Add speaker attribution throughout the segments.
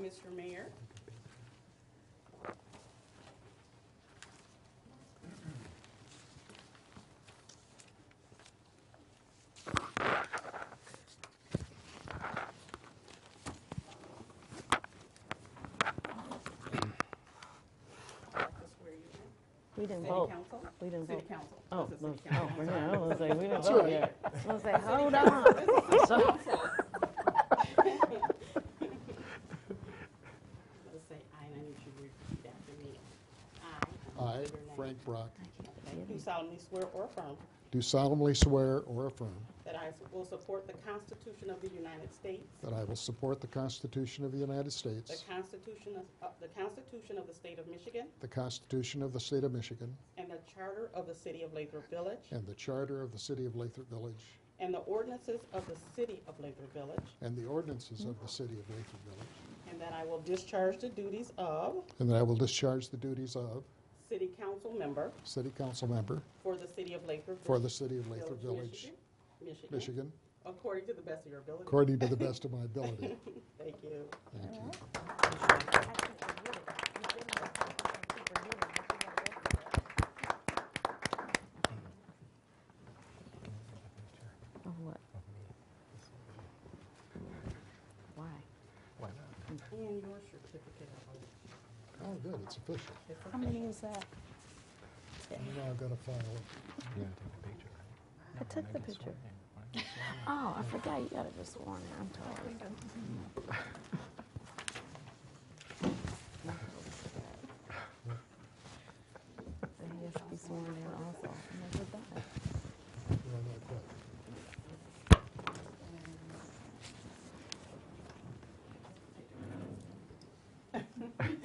Speaker 1: Mr. Mayor. I'd like to swear you in.
Speaker 2: We didn't
Speaker 1: City
Speaker 2: vote.
Speaker 1: Council?
Speaker 2: We didn't
Speaker 1: Oh. City
Speaker 2: vote.
Speaker 1: Council.
Speaker 2: Oh,
Speaker 1: This is
Speaker 2: no,
Speaker 1: City
Speaker 2: oh,
Speaker 1: Council.
Speaker 2: we're not, I was like, we didn't vote yet. I was like, hold on.
Speaker 1: Council. Let's say, I, and I need you to repeat after me. I.
Speaker 3: I,
Speaker 1: your name.
Speaker 3: Frank Brock,
Speaker 1: Do solemnly swear or affirm
Speaker 3: do solemnly swear or affirm
Speaker 1: that I will support the Constitution of the United States,
Speaker 3: that I will support the Constitution of the United
Speaker 1: the
Speaker 3: States,
Speaker 1: Constitution of, uh, the Constitution of the State of Michigan,
Speaker 3: the Constitution of the State of Michigan,
Speaker 1: and the Charter of the City of Lathrop Village,
Speaker 3: and the Charter of the City of Lathrop Village,
Speaker 1: and the ordinances of the City of Lathrop Village,
Speaker 3: and the ordinances of the City of Lathrop Village,
Speaker 1: and that I will discharge the duties of
Speaker 3: and that I will discharge the duties of
Speaker 1: City Council Member
Speaker 3: City Council Member
Speaker 1: for the City of Lathrop.
Speaker 3: for
Speaker 1: Village-
Speaker 3: the City of Lathrop Village,
Speaker 1: Michigan. Michigan.
Speaker 3: Michigan,
Speaker 1: According to the best of your ability.
Speaker 3: according to the best of my ability.
Speaker 1: Thank you.
Speaker 3: Thank you.
Speaker 2: Oh, what? Why?
Speaker 1: And your certificate of oath.
Speaker 3: Oh, good, it's official.
Speaker 1: It's
Speaker 2: How many is that?
Speaker 3: Now I've got to file it.
Speaker 2: I took the picture. Oh, I forgot, you gotta be sworn in, I'm sorry. So He has to be sworn in also. I never done it.
Speaker 3: No, not quite.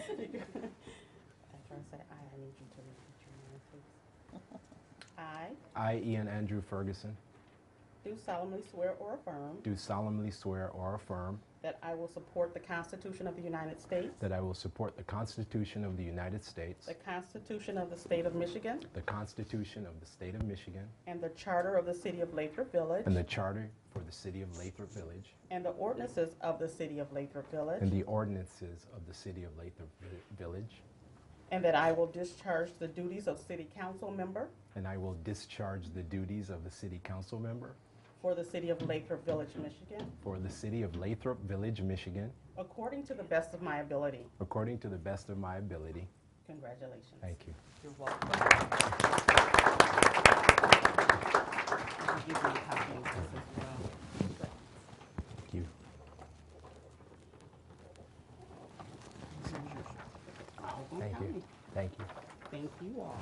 Speaker 1: After I say I, I need you to repeat your name, please. I
Speaker 4: I, Ian Andrew Ferguson,
Speaker 1: do solemnly swear or affirm
Speaker 4: do solemnly swear or affirm
Speaker 1: that I will support the Constitution of the United States,
Speaker 4: that I will support the Constitution of the United States,
Speaker 1: the Constitution of the State of Michigan,
Speaker 4: the Constitution of the State of Michigan,
Speaker 1: and the Charter of the City of Lathrop Village,
Speaker 4: and the Charter for the City of Lathrop Village,
Speaker 1: and the ordinances of the City of Lathrop
Speaker 4: and
Speaker 1: Village,
Speaker 4: the ordinances of the City of Lathrop Vi- Village,
Speaker 1: and that I will discharge the duties of City Council Member
Speaker 4: and I will discharge the duties of the City Council member
Speaker 1: for the City of Lathrop Village, Michigan,
Speaker 4: for the City of Lathrop Village, Michigan,
Speaker 1: according to the best of my ability.
Speaker 4: according to the best of my ability.
Speaker 1: Congratulations.
Speaker 4: Thank you.
Speaker 1: You're welcome. I'll give you a copy of this as well.
Speaker 4: Thank you. Thank you. Thank you.
Speaker 1: Thank you all.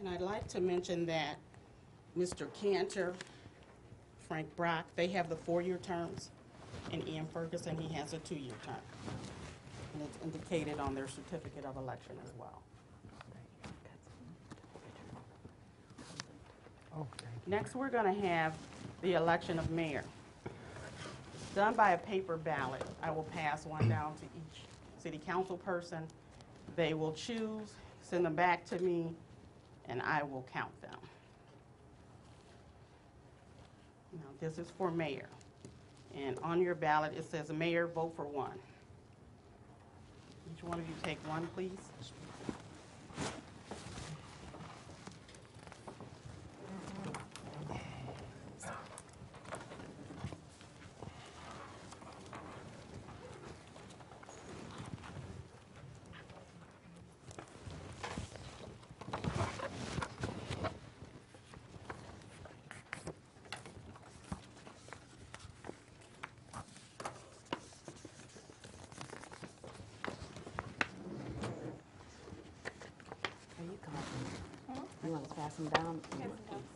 Speaker 1: And I'd like to mention that Mr. Cantor, Frank Brock, they have the four-year terms, and Ian Ferguson, he has a two-year term. And it's indicated on their certificate of election as well. Next, we're going to have the election of mayor. Done by a paper ballot. I will pass one down to each city council person. They will choose, send them back to me, and I will count them. Now, this is for mayor. And on your ballot, it says, "Mayor, vote for one." Each one of you take one, please.
Speaker 2: Are you coming? You want to pass them down? You want-